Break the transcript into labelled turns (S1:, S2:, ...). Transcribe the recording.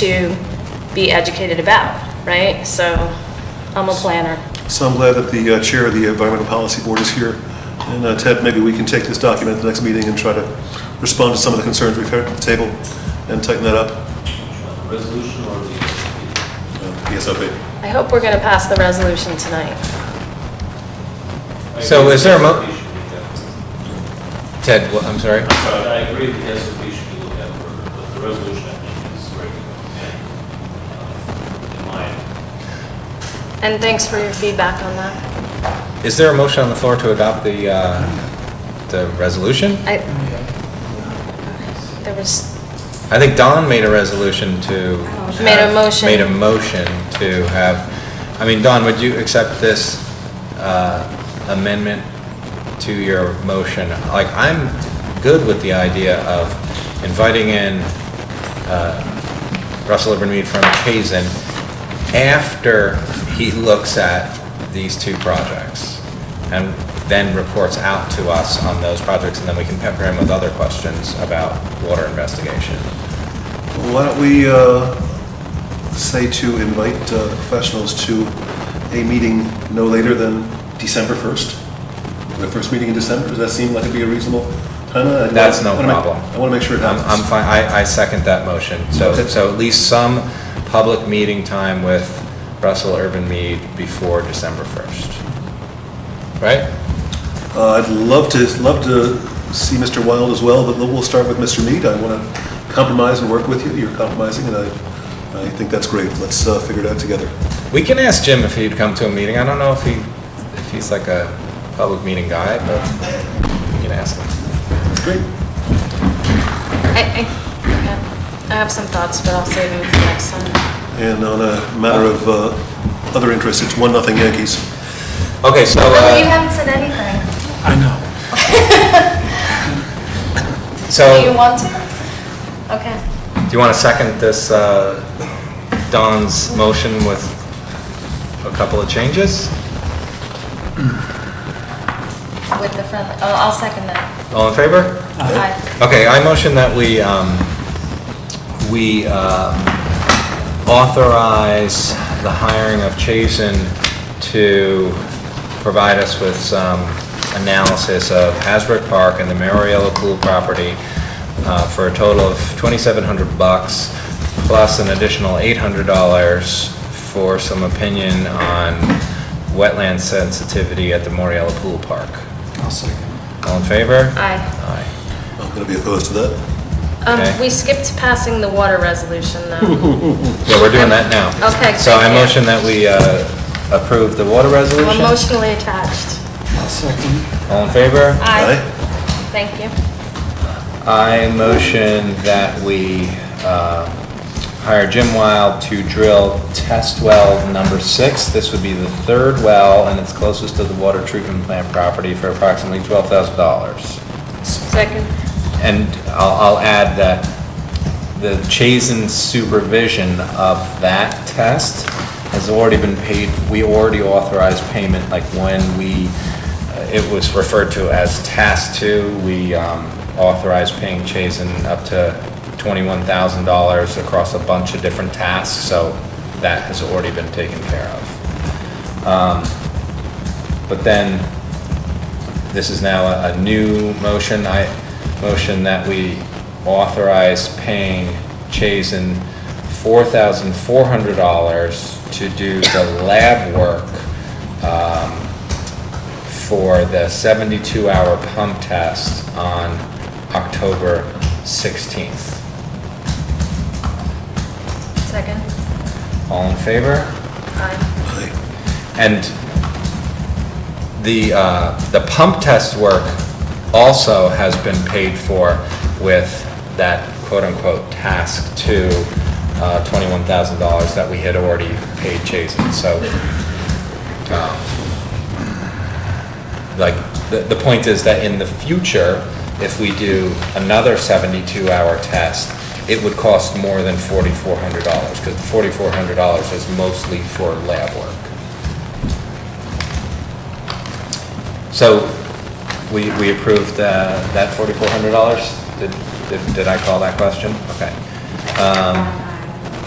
S1: to be educated about, right? So I'm a planner.
S2: So I'm glad that the uh, chair of the Environmental Policy Board is here. And uh, Ted, maybe we can take this document at the next meeting and try to respond to some of the concerns we've heard at the table and tighten that up.
S3: Resolution or the,
S4: Uh,
S2: ESOP.
S1: I hope we're going to pass the resolution tonight.
S4: So is there a mo-
S3: I agree with the
S4: Ted, well, I'm sorry.
S3: SOP should be looked at. Sorry, I agree that the SOP should be looked at further, but the resolution, I think, is where you, in my,
S1: And thanks for your feedback on that.
S4: Is there a motion on the floor to adopt the, uh, the resolution?
S1: I, there was,
S4: I think Don made a resolution to.
S1: Oh, Made a
S4: have-
S1: motion.
S4: Made a motion to have, I mean, Don, would you accept this uh, amendment to your motion? Like, I'm good with the idea of inviting in uh, Russell Mead from Hazen after he looks at these two projects and then reports out to us on those projects, and then we can pepper him with other questions about water investigation.
S2: Why don't we uh, say to invite uh, professionals to a meeting no later than December 1st? The first meeting in December, does that seem like it'd be a reasonable timeline? I'd
S4: That's no
S2: wanna- I wanna make-
S4: problem.
S2: I want to make sure it
S4: I'm,
S2: happens.
S4: I'm fine, I, I second that motion. So,
S2: Okay.
S4: so at least some public meeting time with Russell Urban Mead before December 1st. Right?
S2: Uh, I'd love to, love to see Mr. Wild as well, but we'll start with Mr. Mead. I want to compromise and work with you. You're compromising, and I, I think that's great. Let's uh, figure it out together.
S4: We can ask Jim if he'd come to a meeting. I don't know if he, if he's like a public meeting guy, but we can ask him.
S2: Great.
S1: I, I, yeah. I have some thoughts, but I'll save them for next time.
S2: And on a matter of uh, other interests, it's one nothing Yankees.
S4: Okay, so,
S5: Well, you
S4: uh,
S5: haven't said anything. Do you
S4: so,
S5: want to? Okay.
S4: do you want to second this, uh, Don's motion with a couple of changes?
S5: With the friendly, oh, I'll second that.
S4: All in favor?
S5: Aye.
S4: Okay, I motion that we, um, we uh, authorize the hiring of Chazen to provide us with some analysis of Hasbrook Park and the Mariella Pool property uh, for a total of 2,700 bucks, plus an additional $800 for some opinion on wetland sensitivity at the Mariella Pool Park. All in favor?
S1: Aye.
S4: Aye.
S2: I'm going to be opposed to that.
S1: Um,
S4: Okay.
S1: we skipped passing the water resolution though.
S4: Yeah, we're doing that now.
S1: Okay,
S4: So I
S1: thank you.
S4: motion that we uh, approve the water
S1: I'm
S4: resolution.
S1: emotionally attached.
S4: All in favor?
S1: Aye. Thank you.
S4: I motion that we uh, hire Jim Wild to drill test well number six. This would be the third well, and it's closest to the water treatment plant property for approximately $12,000.
S1: Second.
S4: And I'll I'll add that the Chazen supervision of that test has already been paid, we already authorized payment, like when we, uh, it was referred to as task two, we um, authorized paying Chazen up to $21,000 across a bunch of different tasks, so that has already been taken care of. Um, But then, this is now a- a new motion. I motion that we authorize paying Chazen $4,400 to do the lab work um, for the 72-hour pump test on October 16th.
S5: Second.
S4: All in favor?
S1: Aye.
S2: Aye.
S4: And the, uh, the pump test work also has been paid for with that quote-unquote task two, uh, $21,000 that we had already paid Chazen. So, um, like, the, the point is that in the future, if we do another 72-hour test, it would cost more than $4,400 because $4,400 is mostly for lab work. So we, we approved uh, that $4,400? Did, did- did I call that question? Okay. Um,